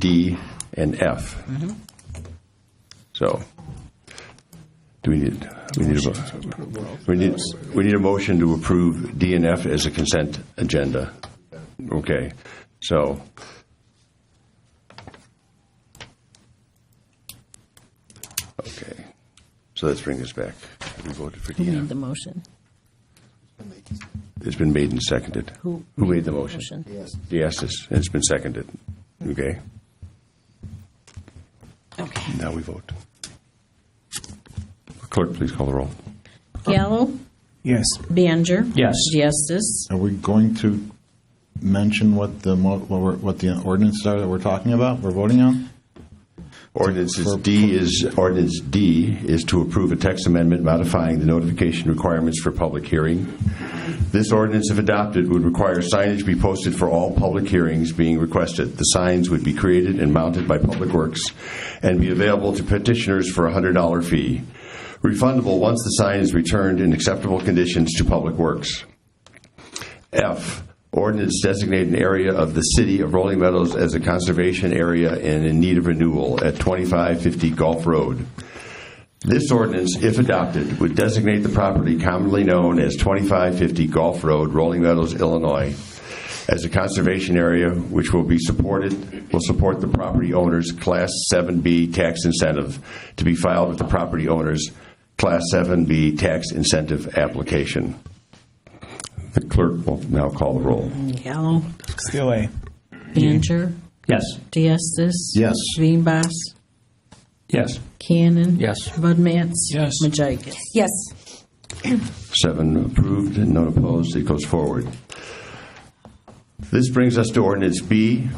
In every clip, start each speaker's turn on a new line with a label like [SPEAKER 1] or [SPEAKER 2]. [SPEAKER 1] D, and F. So, do we need, we need a, mo- we need, we need a motion to approve D and F as a consent agenda. Okay, so. Okay, so let's bring this back. We voted for D
[SPEAKER 2] Who
[SPEAKER 1] and F.
[SPEAKER 2] made the motion?
[SPEAKER 1] It's been made and seconded.
[SPEAKER 2] Who-
[SPEAKER 1] made the motion?
[SPEAKER 2] motion?
[SPEAKER 1] Yes. Yes, it's, it's been seconded. Okay,
[SPEAKER 2] Okay.
[SPEAKER 1] now we vote. Clerk, please call the roll.
[SPEAKER 2] Gallo,
[SPEAKER 3] Yes.
[SPEAKER 2] Baner.
[SPEAKER 3] Yes.
[SPEAKER 2] Diestis,
[SPEAKER 4] Are we going to mention what the, mo- what we're- what the ordinances are that we're talking about, we're voting on?
[SPEAKER 1] Ordinance is D is, ordinance D is to approve a text amendment modifying the notification requirements for public hearing. This ordinance, if adopted, would require signage be posted for all public hearings being requested. The signs would be created and mounted by Public Works and be available to petitioners for a $100 fee, refundable once the sign is returned in acceptable conditions to Public Works. F, ordinance designate an area of the city of Rolling Meadows as a conservation area and in need of renewal at 2550 Gulf Road. This ordinance, if adopted, would designate the property commonly known as 2550 Gulf Road, Rolling Meadows, Illinois, as a conservation area which will be supported, will support the property owner's Class 7B tax incentive to be filed with the property owner's Class 7B tax incentive application. The clerk will now call the roll.
[SPEAKER 2] Gallo,
[SPEAKER 3] Stille.
[SPEAKER 2] Baner,
[SPEAKER 3] Yes.
[SPEAKER 2] Diestis.
[SPEAKER 4] Yes.
[SPEAKER 2] Veenbos,
[SPEAKER 3] Yes.
[SPEAKER 2] Cannon.
[SPEAKER 3] Yes.
[SPEAKER 2] Bud Matts.
[SPEAKER 3] Yes.
[SPEAKER 2] Majikis.
[SPEAKER 5] Yes.
[SPEAKER 1] Seven approved and none opposed. It goes forward. This brings us to ordinance B.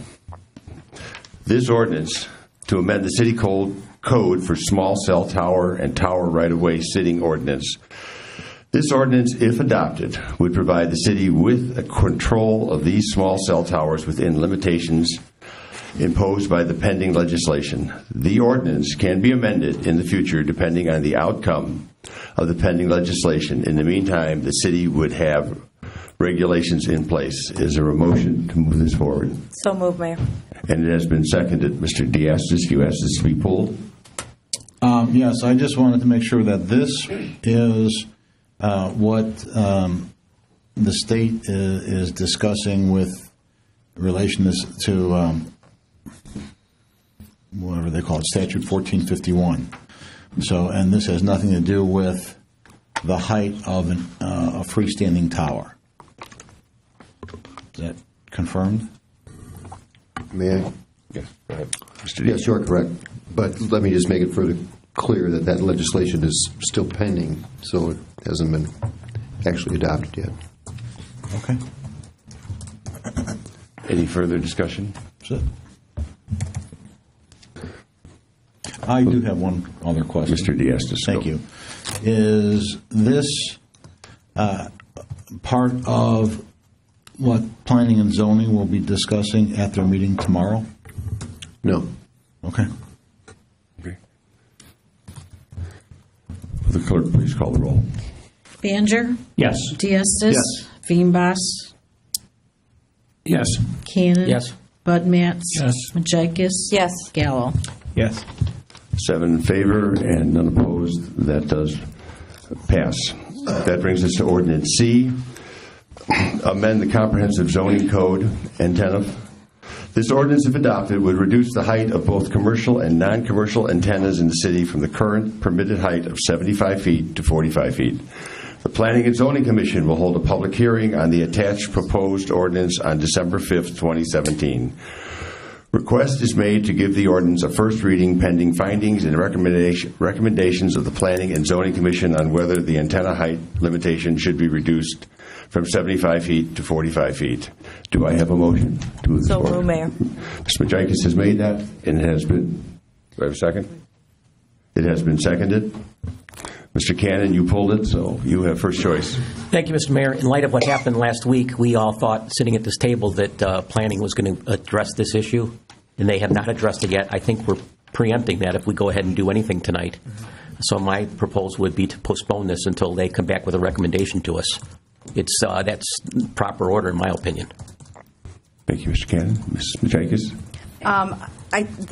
[SPEAKER 1] This ordinance to amend the city code, code for small cell tower and tower right-of-way sitting ordinance. This ordinance, if adopted, would provide the city with a control of these small cell towers within limitations imposed by the pending legislation. The ordinance can be amended in the future depending on the outcome of the pending legislation. In the meantime, the city would have regulations in place. Is there a motion to move this forward?
[SPEAKER 5] So move, Mayor.
[SPEAKER 1] And it has been seconded. Mr. Diastis, you asked this to be pulled?
[SPEAKER 4] Um, Yes, I just wanted to make sure that this is uh, what um, the state i- is discussing with relation to s- to, um, whatever they call it, statute 1451. So, and this has nothing to do with the height of an, uh, a freestanding tower. Is that confirmed?
[SPEAKER 6] May I?
[SPEAKER 1] Yes, go ahead. Mr.
[SPEAKER 6] Yes, you are correct. But let me just make it further clear that that legislation is still pending, so it hasn't been actually adopted yet.
[SPEAKER 4] Okay.
[SPEAKER 1] Any further discussion?
[SPEAKER 4] That's it. I do have one other question.
[SPEAKER 1] Mr. Diastis.
[SPEAKER 4] Thank you. Is this uh, part of what planning and zoning will be discussing at their meeting tomorrow?
[SPEAKER 6] No.
[SPEAKER 4] Okay.
[SPEAKER 1] you. The clerk, please call the roll.
[SPEAKER 2] Baner,
[SPEAKER 3] Yes.
[SPEAKER 2] Diestis.
[SPEAKER 4] Yes.
[SPEAKER 2] Veenbos,
[SPEAKER 3] Yes.
[SPEAKER 2] Cannon.
[SPEAKER 3] Yes.
[SPEAKER 2] Bud Matts.
[SPEAKER 3] Yes.
[SPEAKER 2] Majikis.
[SPEAKER 5] Yes.
[SPEAKER 2] Gallo.
[SPEAKER 3] Yes.
[SPEAKER 1] Seven in favor and none opposed. That does pass. That brings us to ordinance C, amend the comprehensive zoning code, antenna. This ordinance, if adopted, would reduce the height of both commercial and non-commercial antennas in the city from the current permitted height of 75 feet to 45 feet. The Planning and Zoning Commission will hold a public hearing on the attached proposed ordinance on December 5th, 2017. Request is made to give the ordinance a first reading pending findings and recommendation- recommendations of the Planning and Zoning Commission on whether the antenna height limitation should be reduced from 75 feet to 45 feet. Do I have a motion to move this
[SPEAKER 5] So
[SPEAKER 1] forward?
[SPEAKER 5] moved, Mayor.
[SPEAKER 1] Ms. Majikis has made that, and it has been, do I have a second? It has been seconded. Mr. Cannon, you pulled it, so you have first choice.
[SPEAKER 7] Thank you, Mr. Mayor. In light of what happened last week, we all thought, sitting at this table, that uh, planning was going to address this issue, and they have not addressed it yet. I think we're preempting that if we go ahead and do anything tonight. So my proposal would be to postpone this until they come back with a recommendation to us. It's, uh, that's proper order, in my opinion.
[SPEAKER 1] Thank you, Mr. Cannon. Ms. Majikis?
[SPEAKER 5] Um, I,